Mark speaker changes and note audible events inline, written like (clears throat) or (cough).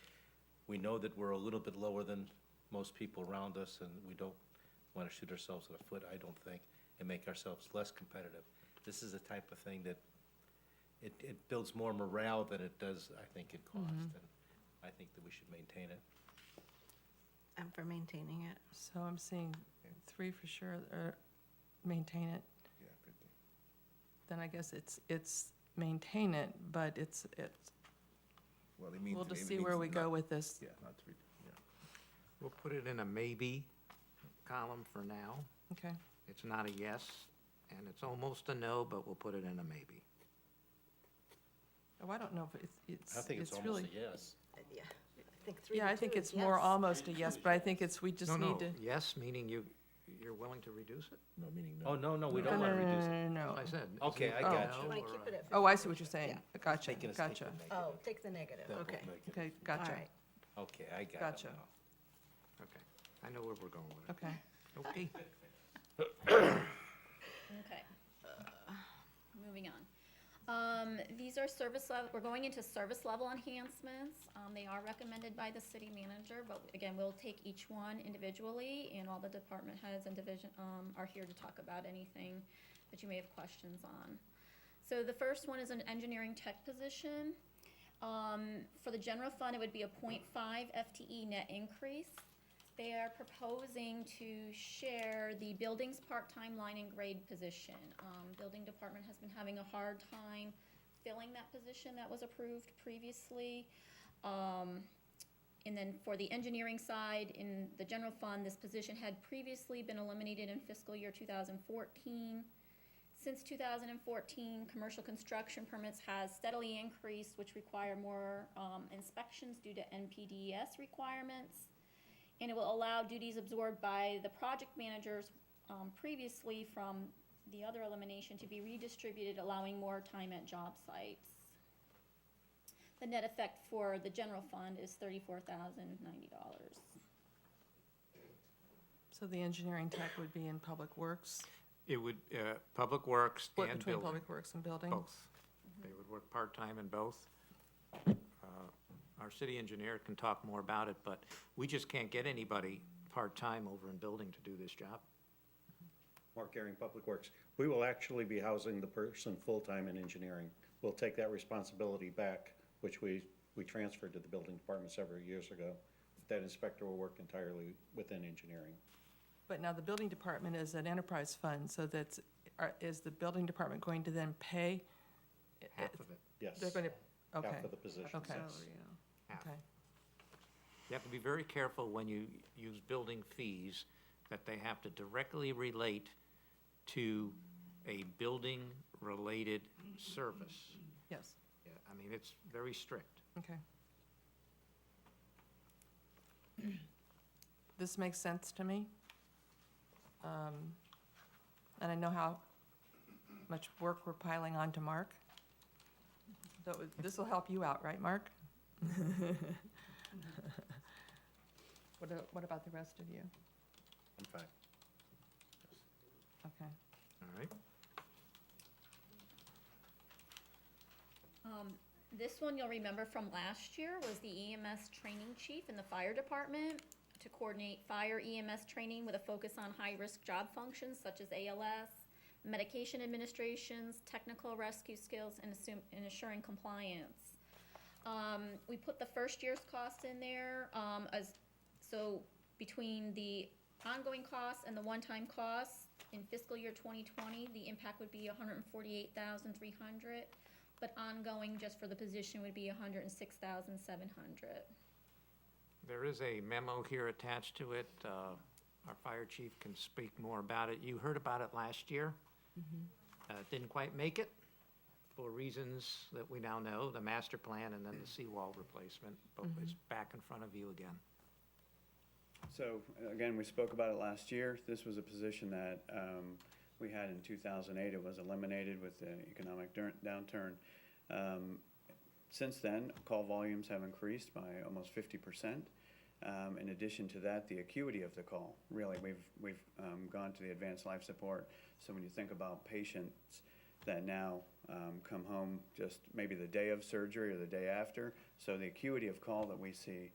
Speaker 1: we know that we're a little bit lower than most people around us, and we don't want to shoot ourselves in the foot, I don't think, and make ourselves less competitive. This is the type of thing that, it, it builds more morale than it does, I think, in cost,
Speaker 2: Mm-hmm.
Speaker 1: and I think that we should maintain it.
Speaker 3: I'm Um, for maintaining it.
Speaker 2: So I'm seeing three for sure, or maintain it.
Speaker 4: Yeah, fifty.
Speaker 2: Then I guess it's, it's maintain it, but it's, it's,
Speaker 4: Well, it means.
Speaker 2: we'll just
Speaker 4: it
Speaker 2: see
Speaker 4: means
Speaker 2: where we go
Speaker 4: not-
Speaker 2: with this.
Speaker 4: Yeah, not to be, yeah.
Speaker 5: We'll put it in a maybe column for now.
Speaker 2: Okay,
Speaker 5: It's not a yes, and it's almost a no, but we'll put it in a maybe.
Speaker 2: oh, I don't know if it's, it's,
Speaker 1: I think it's
Speaker 2: it's
Speaker 1: almost
Speaker 2: really.
Speaker 1: a yes.
Speaker 3: Uh, Yeah, I think three
Speaker 2: Yeah, I
Speaker 3: to
Speaker 2: think
Speaker 3: two is
Speaker 2: it's more
Speaker 3: yes.
Speaker 2: almost a yes, but I think it's, we
Speaker 5: No,
Speaker 2: just
Speaker 5: no,
Speaker 2: need to.
Speaker 5: yes, meaning you, you're willing to reduce it?
Speaker 4: No, meaning no.
Speaker 1: Oh, no, no, we
Speaker 2: No,
Speaker 1: don't
Speaker 2: no,
Speaker 1: want to
Speaker 2: no,
Speaker 1: reduce it.
Speaker 2: no, no, no.
Speaker 5: Oh. I said. it's
Speaker 1: Okay,
Speaker 5: either
Speaker 1: I
Speaker 5: a
Speaker 1: got
Speaker 5: no
Speaker 1: you.
Speaker 3: Want to
Speaker 5: or
Speaker 3: keep
Speaker 5: a-
Speaker 3: it at.
Speaker 2: Oh, I see
Speaker 3: 50.
Speaker 2: what you're saying.
Speaker 3: Yeah.
Speaker 2: Gotcha,
Speaker 1: Taking a sneak
Speaker 2: gotcha.
Speaker 1: peek.
Speaker 3: Oh, take the negative,
Speaker 1: That will
Speaker 3: okay.
Speaker 1: make it-
Speaker 2: Okay,
Speaker 3: All
Speaker 2: gotcha,
Speaker 3: right.
Speaker 1: Okay, I got it
Speaker 2: Gotcha.
Speaker 1: now.
Speaker 5: Okay, I know where we're going with it.
Speaker 2: okay.
Speaker 5: Okay,
Speaker 6: Okay. Uh, Moving on. Um, these are service level, we're going into service level enhancements. Um, they are recommended by the city manager, but again, we'll take each one individually and all the department heads and division, um, are here to talk about anything that you may have questions on. So the first one is an engineering tech position. Um, for the general fund, it would be a 0.5 FTE E net increase. They are proposing to share the buildings part-time line and grade position. Um, building department has been having a hard time filling that position that was approved previously. Um, and then for the engineering side, in the general fund, this position had previously been eliminated in fiscal year two thousand fourteen. Since 2014, commercial construction permits has steadily increased, which require more um, inspections due to NPDES E requirements. And it will allow duties absorbed by the project managers um, previously from the other elimination to be redistributed, allowing more time at job sites. The net effect for the general fund is $34,090.
Speaker 2: So the engineering tech would be in Public Works,
Speaker 5: it would, uh, Public Works
Speaker 2: split
Speaker 5: and
Speaker 2: between
Speaker 5: Building,
Speaker 2: Public Works and Building?
Speaker 5: both. They would work part-time in both. Uh, Our city engineer can talk more about it, but we just can't get anybody part-time over in Building to do this job.
Speaker 7: Mark Garing, Public Works. We will actually be housing the person full-time in engineering. We'll take that responsibility back, which we, we transferred to the building department several years ago. That inspector will work entirely within engineering.
Speaker 2: But now the building department is an enterprise fund, so that's, are- is the building department going to then pay?
Speaker 5: Half of it,
Speaker 7: Yes.
Speaker 2: They're going to, okay,
Speaker 7: Half of the positions,
Speaker 2: okay,
Speaker 7: yes.
Speaker 5: half.
Speaker 2: okay.
Speaker 5: You have to be very careful when you use building fees, that they have to directly relate to a building-related service.
Speaker 2: Yes,
Speaker 5: Yeah, I mean, it's very strict.
Speaker 2: okay. (clears throat) This makes sense to me. Um, And I know how much work we're piling on to Mark. So this will help you out, right, Mark? What a- What about the rest of you?
Speaker 1: I'm fine.
Speaker 2: Okay.
Speaker 5: All right,
Speaker 6: Um, this one you'll remember from last year was the EMS training chief in the fire department to coordinate fire EMS training with a focus on high-risk job functions such as ALS, medication administrations, technical rescue skills, and assume, and assuring compliance. Um, we put the first year's cost in there, um, as, so between the ongoing costs and the one-time costs in fiscal year twenty twenty, the impact would be 148,300. hundred and forty-eight thousand three hundred, but ongoing just for the position would be hundred and six thousand seven hundred.
Speaker 5: there is a memo here attached to it. Uh, Our fire chief can speak more about it. You heard about it last year. Uh, it Didn't quite make it for reasons that we now know, the master plan and then the seawall replacement, but it's back in front of you again.
Speaker 8: So, again, we spoke about it last year. This was a position that um, we had in 2008. It was eliminated with the economic dur- downturn. Um, Since then, call volumes have increased by almost 50%. Um, In addition to that, the acuity of the call, really, we've, we've um, gone to the advanced life support. So when you think about patients that now um, come home just maybe the day of surgery or the day after, so the acuity of call that we see